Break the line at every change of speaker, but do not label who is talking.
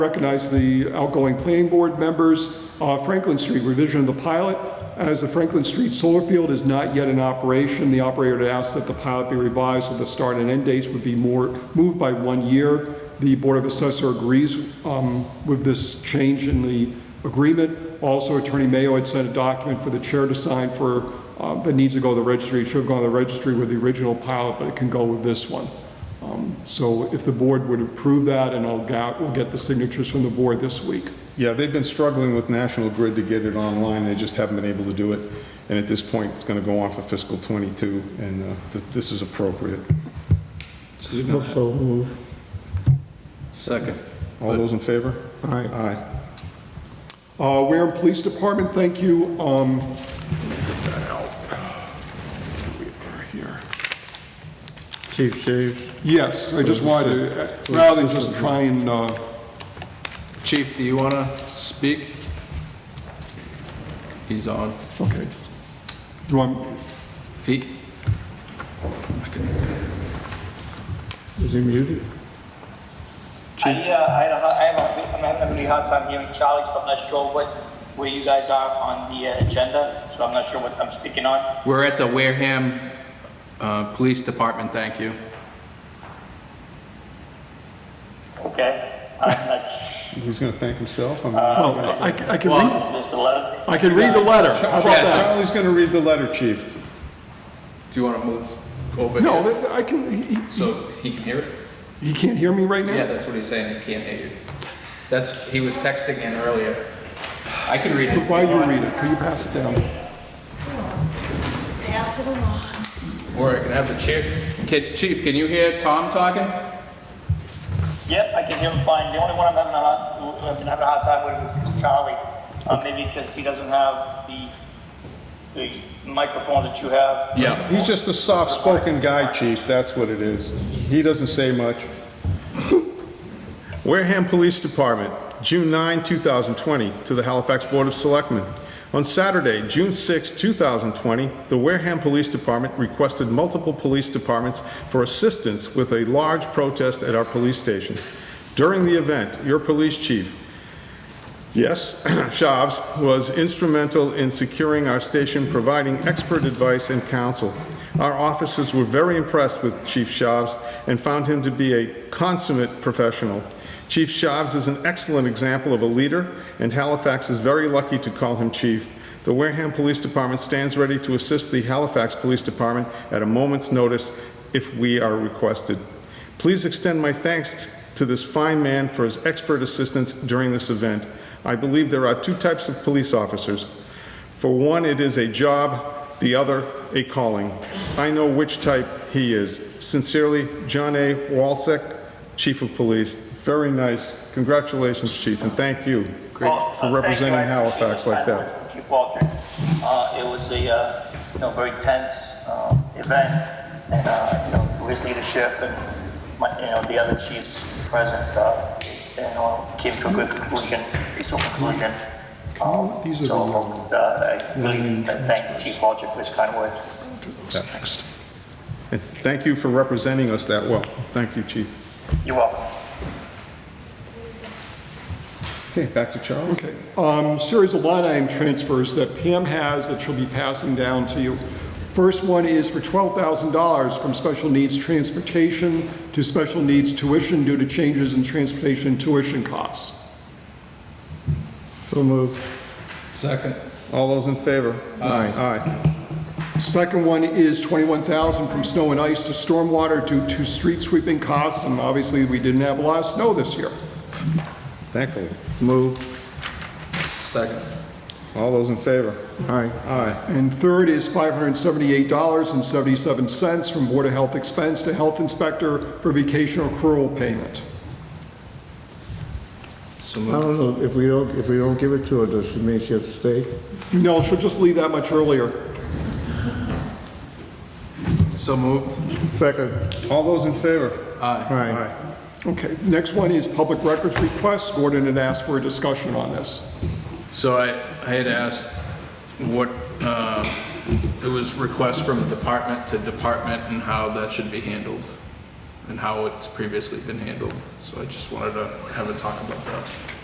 recognize the outgoing planning board members. Uh, Franklin Street, revision of the pilot. As the Franklin Street solar field is not yet in operation, the operator had asked that the pilot be revised so the start and end dates would be more, moved by one year. The Board of Assessor agrees um, with this change in the agreement. Also, Attorney Mayo had sent a document for the chair to sign for, uh, that needs to go to the registry. It should have gone to the registry with the original pilot, but it can go with this one. So if the board would approve that, and I'll get, we'll get the signatures from the board this week.
Yeah, they've been struggling with National Grid to get it online, they just haven't been able to do it. And at this point, it's gonna go on for fiscal '22, and uh, th- this is appropriate.
So move.
Second.
All those in favor?
Aye.
Aye.
Uh, Wareham Police Department, thank you. Um,
Chief Shaves.
Yes, I just wanted to, rather than just try and, uh,
Chief, do you want to speak? He's on.
okay. Do I,
He,
Is he muted?
I, uh, I, don't know, I have a, I'm having a really hard time hearing Charlie, so I'm not sure what, where you guys are on the uh, agenda, so I'm not sure what I'm speaking on.
we're at the Wareham uh, Police Department, thank you.
Okay, I'm not sure.
He's gonna thank himself. I'm-
oh, I I can read,
Is this the letter?
I can read the letter. How about that?
Charlie's gonna read the letter, chief.
Do you want to move over here?
No, that- I can, he-
So he can hear it?
he, he can't hear me right
Yeah,
now?
that's what he's saying, he can't hear you. That's, he was texting in earlier. I can read it.
While you read it, could you pass it down?
Pass it along.
Or I can have the chair, can, chief, can you hear Tom talking?
Yep, I can hear him fine. The only one I'm having a hard, I've been having a hard time with is Charlie. Uh, maybe because he doesn't have the, the microphones that you have.
Yeah.
He's just a soft-spoken guy, chief, that's what it is. He doesn't say much. Wareham Police Department, June 9, 2020, to the Halifax Board of Selectmen. On Saturday, June 6, 2020, the Wareham Police Department requested multiple police departments for assistance with a large protest at our police station. During the event, your police chief, Yes, Shavs was instrumental in securing our station, providing expert advice and counsel. Our officers were very impressed with Chief Shavs and found him to be a consummate professional. Chief Shavs is an excellent example of a leader, and Halifax is very lucky to call him chief. The Wareham Police Department stands ready to assist the Halifax Police Department at a moment's notice if we are requested. Please extend my thanks to this fine man for his expert assistance during this event. I believe there are two types of police officers. For one, it is a job, the other, a calling. I know which type he is. Sincerely, John A. Walsek, Chief of Police. Very nice. Congratulations, Chief, and thank you
Well,
for
uh, thank you.
representing
I appreciate
Halifax
the
like
kind
that.
words, Chief Baldridge. Uh, it was a, uh, you know, very tense, um, event, and, uh, you know, through his leadership and my, you know, the other chiefs present, uh, you know, came to a good conclusion, peaceful conclusion. Um,
These are
so,
the, um,
uh, I really thank Chief Baldridge for his kind words.
And thank you for representing us that well. Thank you, Chief.
You're welcome.
Okay, back to Charlie.
Okay. Um, Series of line item transfers that Pam has that she'll be passing down to you. First one is for $12,000 from special needs transportation to special needs tuition due to changes in transportation tuition costs.
So move.
Second.
All those in favor? Aye. Aye.
Second one is 21,000 from snow and ice to stormwater due to street sweeping costs, and obviously, we didn't have a lot of snow this year.
Thankfully.
Move.
Second.
All those in favor?
Aye.
Aye.
And third is $578.77 from Board of Health expense to health inspector for vacation accrual payment.
So
I
moved.
don't know, if we don't, if we don't give it to her, does it mean she has to stay?
No, she'll just leave that much earlier.
So moved.
Second.
All those in favor?
Aye.
Aye.
Okay, next one is public records requests. Gordon had asked for a discussion on this.
So I, I had asked what, uh, it was request from department to department and how that should be handled. and how it's previously been handled. So I just wanted to have a talk about that.